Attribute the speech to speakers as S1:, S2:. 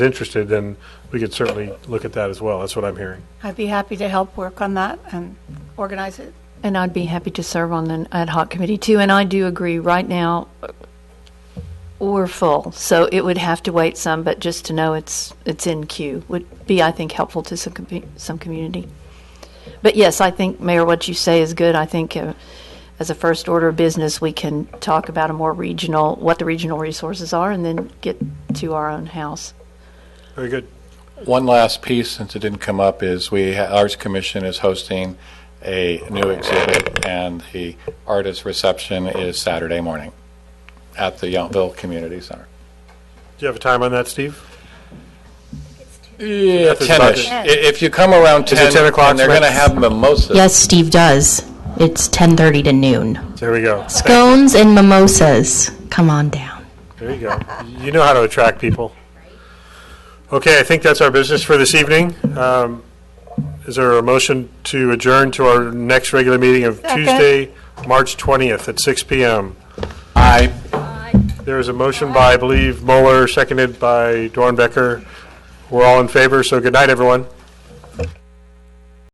S1: interested, then we could certainly look at that as well. That's what I'm hearing.
S2: I'd be happy to help work on that and organize it.
S3: And I'd be happy to serve on an ad hoc committee too. And I do agree, right now, we're full. So it would have to wait some, but just to know it's, it's in queue would be, I think, helpful to some, compu- some community. But yes, I think, Mayor, what you say is good. I think uh, as a first order of business, we can talk about a more regional, what the regional resources are, and then get to our own house.
S1: Very good.
S4: One last piece, since it didn't come up, is we, ha- Arts Commission is hosting a new exhibit, and the artist reception is Saturday morning at the Yountville Community Center.
S1: Do you have a time on that, Steve?
S4: Yeah,
S1: That's
S4: ten-ish.
S1: about
S4: I- If you come around
S1: it
S4: ten,
S1: 10 o'clock,
S4: and they're going to
S1: Smith?
S4: have mimosas.
S5: Yes, Steve does. It's 10:30 to noon.
S1: There we go.
S5: Scones and mimosas. Come on down.
S1: There you go. You know how to attract people. Okay, I think that's our business for this evening. Um, Is there a motion to adjourn to our next regular meeting of Tuesday, March 20th at 6 PM?
S4: I
S1: There is a motion by, I believe, Mueller, seconded by Dornbecker. We're all in favor, so good night, everyone.